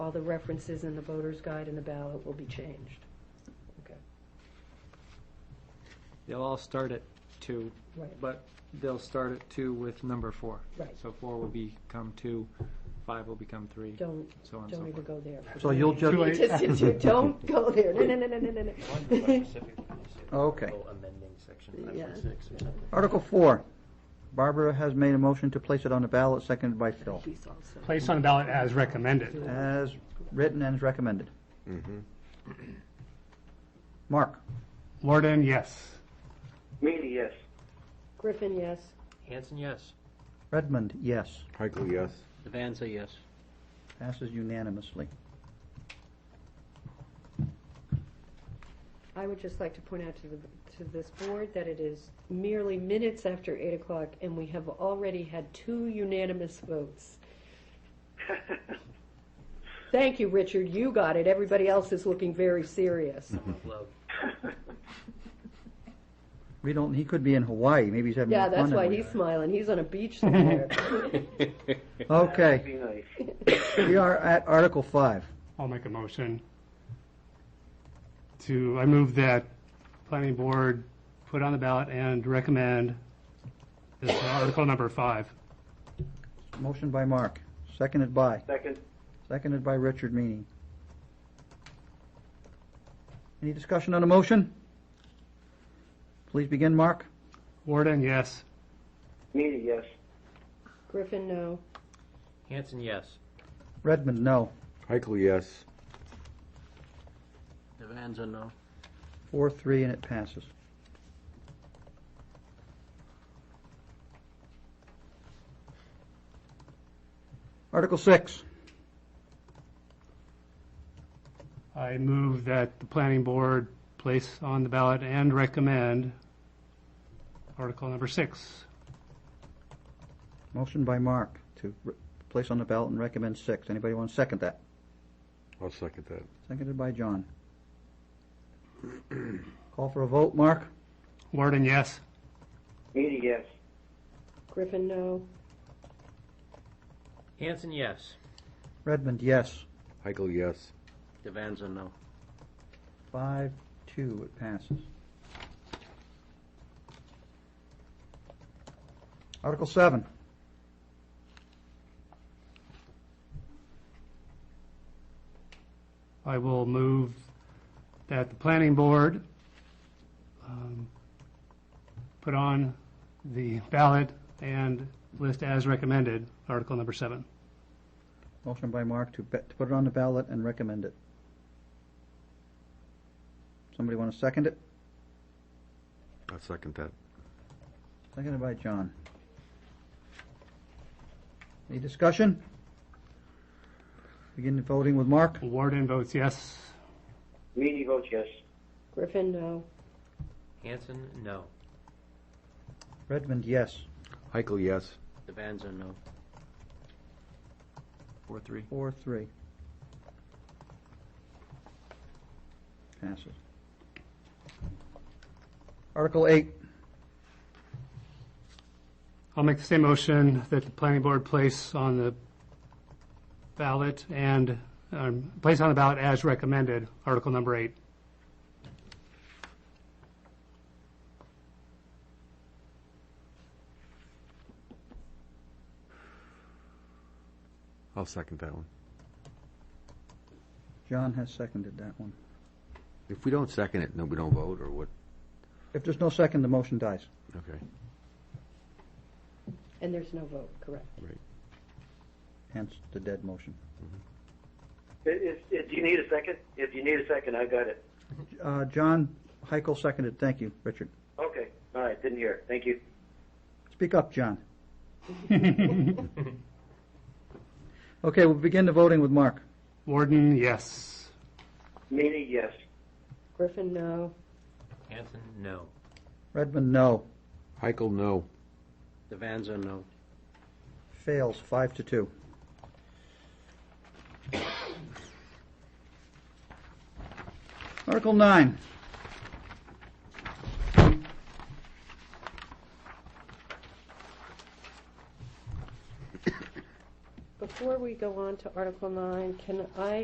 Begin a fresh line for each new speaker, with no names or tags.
all the references in the voter's guide and the ballot will be changed. Okay,
They'll all start at two,
right,
but they'll start at two with number four.
Right.
So four will become two, five will become three,
don't,
so on and so
don't even
forth.
go there.
So you'll just-
You you Don't go there, no, no, no, no, no, no.
Okay.
Amending section
Yeah.
5.6.
Article four. Barbara has made a motion to place it on the ballot, seconded by Phil.
Please also.
Place on the ballot as recommended.
As written and as recommended. Mark?
Warden, yes.
Mealy, yes.
Griffin, yes.
Hanson, yes.
Redmond, yes.
Heickel, yes.
Devanza, yes.
Passes unanimously.
I would just like to point out to the, to this board that it is merely minutes after eight o'clock and we have already had two unanimous votes. Thank you, Richard, you got it, everybody else is looking very serious.
Mm-hmm.
Love.
We don't, he could be in Hawaii, maybe he's having
Yeah,
more fun.
that's
than
why
we
he's
are.
smiling, he's on a beach somewhere.
That'd
Okay,
be nice.
we are at Article five.
I'll make a motion to, I move that planning board put on the ballot and recommend this article number five.
Motion by Mark, seconded by,
Second,
seconded by Richard Meany. Any discussion on the motion? Please begin, Mark.
Warden, yes.
Mealy, yes.
Griffin, no.
Hanson, yes.
Redmond, no.
Heickel, yes.
Devanza, no.
Four, three, and it passes. Article six.
I move that the planning board place on the ballot and recommend article number six.
Motion by Mark to re- place on the ballot and recommend six. Anybody want to second that?
I'll second that.
Seconded by John. Call for a vote, Mark?
Warden, yes.
Mealy, yes.
Griffin, no.
Hanson, yes.
Redmond, yes.
Heickel, yes.
Devanza, no.
Five, two, it passes. Article seven.
I will move that the planning board um, put on the ballot and list as recommended, article number seven.
Motion by Mark to, be- to put it on the ballot and recommend it. Somebody want to second it?
I'll second that.
Seconded by John. Any discussion? Begin voting with Mark.
Warden votes yes.
Mealy votes yes.
Griffin, no.
Hanson, no.
Redmond, yes.
Heickel, yes.
Devanza, no.
Four, three.
Four, three. Passes. Article eight.
I'll make the same motion that the planning board place on the ballot and, um, place on the ballot as recommended, article number eight.
I'll second that one.
John has seconded that one.
If we don't second it, then we don't vote, or what?
If there's no second, the motion dies.
Okay.
And there's no vote, correct.
Hence the dead motion.
If, if, do you need a second? If you need a second, I got it.
Uh, John Heichel seconded. Thank you, Richard.
Okay, all right, didn't hear. Thank you.
Speak up, John. Okay, we'll begin the voting with Mark.
Warden, yes.
Mealy, yes.
Griffin, no.
Hanson, no.
Redmond, no.
Heickel, no.
Devanza, no.
Fails, five to two. Article nine.
Before we go on to Article 9, can I